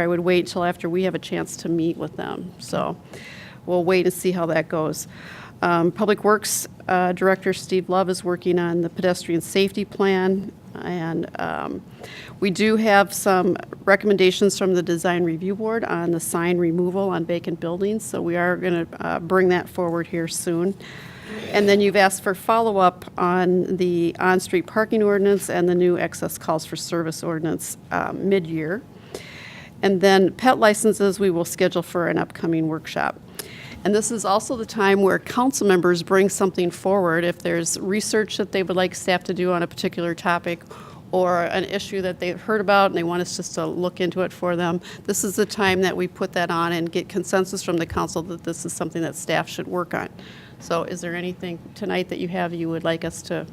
I would wait till after we have a chance to meet with them. So we'll wait and see how that goes. Um, Public Works uh, Director Steve Love is working on the pedestrian safety plan. And um, we do have some recommendations from the Design Review Board on the sign removal on vacant buildings. So we are going to bring that forward here soon. And then you've asked for follow-up on the on-street parking ordinance and the new excess calls for service ordinance um, mid-year. And then pet licenses, we will schedule for an upcoming workshop. And this is also the time where council members bring something forward if there's research that they would like staff to do on a particular topic or an issue that they've heard about and they want us just to look into it for them. This is the time that we put that on and get consensus from the council that this is something that staff should work on. So is there anything tonight that you have you would like us to?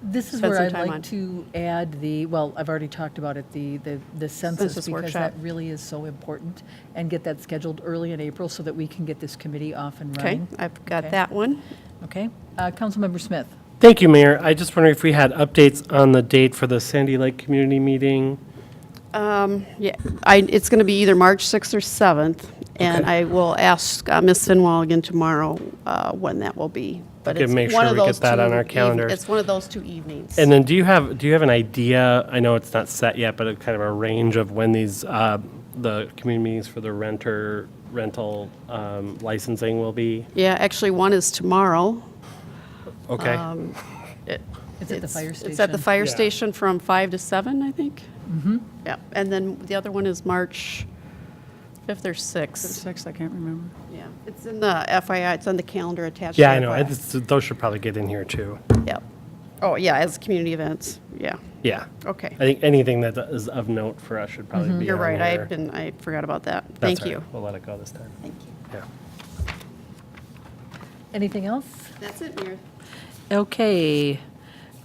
This is spend where some I'd time on. like to add the, well, I've already talked about it, the, the the Census census, because workshop. that really is so important, and get that scheduled early in April so that we can get this committee off and Okay, running. I've got Okay. that one. Okay, Uh, Councilmember Smith, Thank you, Mayor. I just wonder if we had updates on the date for the Sandy Lake Community Meeting? Um, Yeah, I, it's going to be either March 6th or 7th, and I will ask uh, Ms. Finwell again tomorrow uh, when that will be. But Okay, it's make one sure of we get those that on two our eve- calendars. It's one of those two evenings. And then do you have, do you have an idea, I know it's not set yet, but a kind of a range of when these, uh, the community meetings for the renter, rental um, licensing will be? Yeah, actually, one is tomorrow. Okay. Um, it's at the fire station. It's at the fire Yeah. station from 5 to 7, I think. Mm-hmm. Yeah, and then the other one is March 5th or 6th. Six, I can't remember. Yeah, it's in the FYI, it's on the calendar attached. to Yeah, I the know. I FYI. just- Those should probably get in here, too. Yeah. Oh, yeah, as community events, yeah. Yeah. Okay. Mm-hmm. I think anything that is of note for us should probably be on You're right, there. I've been, I forgot about that. That's Thank all right. you. We'll let it go this time. Thank you. Yeah. Anything else? That's it, Mayor. Okay,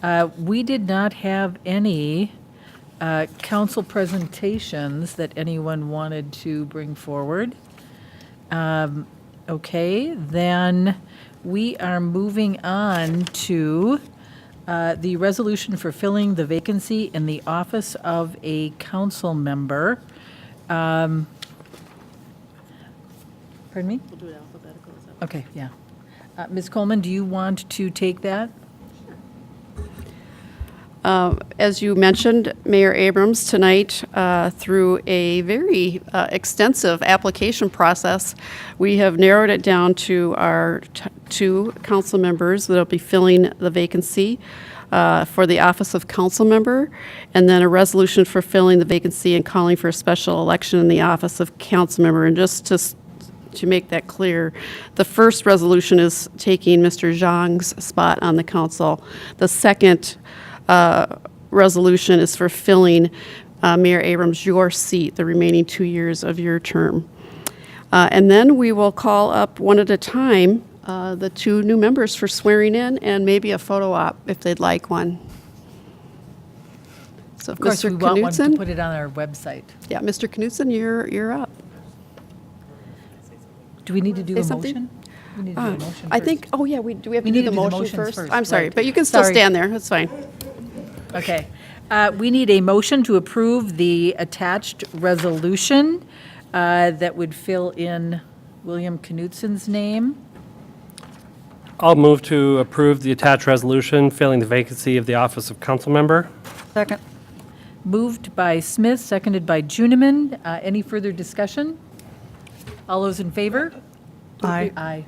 Uh, we did not have any uh, council presentations that anyone wanted to bring forward. Um, Okay, then we are moving on to uh, the resolution for filling the vacancy in the office of a council member. Um, Pardon me? We'll do it alphabetical. is that- Okay, yeah. Uh, Ms. Coleman, do you want to take that? Uh, As you mentioned, Mayor Abrams, tonight, uh, through a very uh, extensive application process, we have narrowed it down to our t- two council members that'll be filling the vacancy uh, for the office of council member, and then a resolution for filling the vacancy and calling for a special election in the office of council member. And just to s- to make that clear, the first resolution is taking Mr. Zhang's spot on the council. The second uh, resolution is for filling uh, Mayor Abrams your seat, the remaining two years of your term. Uh, And then we will call up one at a time uh, the two new members for swearing in and maybe a photo op if they'd like one. So, Of course, Mr. we want one to Knudsen? put it on our website. Yeah, Mr. Knudsen, you're, you're up. Do we need to do Say a something? motion? We need to do a motion I first. think, oh yeah, we, do we have We to do need the to do the motion motions first? first, I'm sorry, right. but you can still Sorry. stand there, that's fine. Okay. Uh, We need a motion to approve the attached resolution uh, that would fill in William Knudsen's name. I'll move to approve the attached resolution filling the vacancy of the office of council member. Second. Moved by Smith, seconded by Juniman. Uh, Any further discussion? All those in favor? Aye. Aye.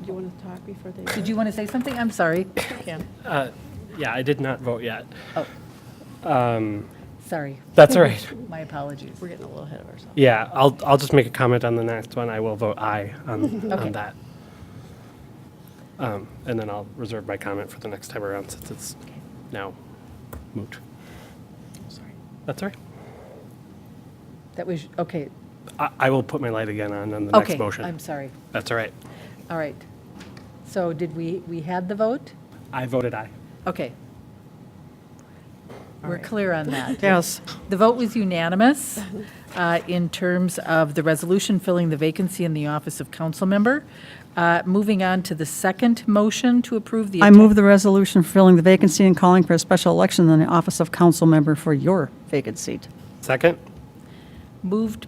Do you want to talk before they? Did you want to say something? I'm sorry. can. Yeah, I did not vote yet. Oh. Sorry. That's all right. My apologies. We're getting a little ahead of ourselves. Yeah, I'll, I'll just make a comment on the next one. I will vote aye on, on that. Um, And then I'll reserve my comment for the next time around since it's now moot. That's all right. That was, okay. I, I will put my light again on on the Okay. next motion. I'm sorry. That's all right. All right. So did we, we had the vote? I voted aye. Okay. We're clear on that. Yes. The vote was unanimous uh, in terms of the resolution filling the vacancy in the office of council member. Uh, Moving on to the second motion to approve the. I move the resolution filling the vacancy and calling for a special election in the office of council member for your vacant seat. Second? Moved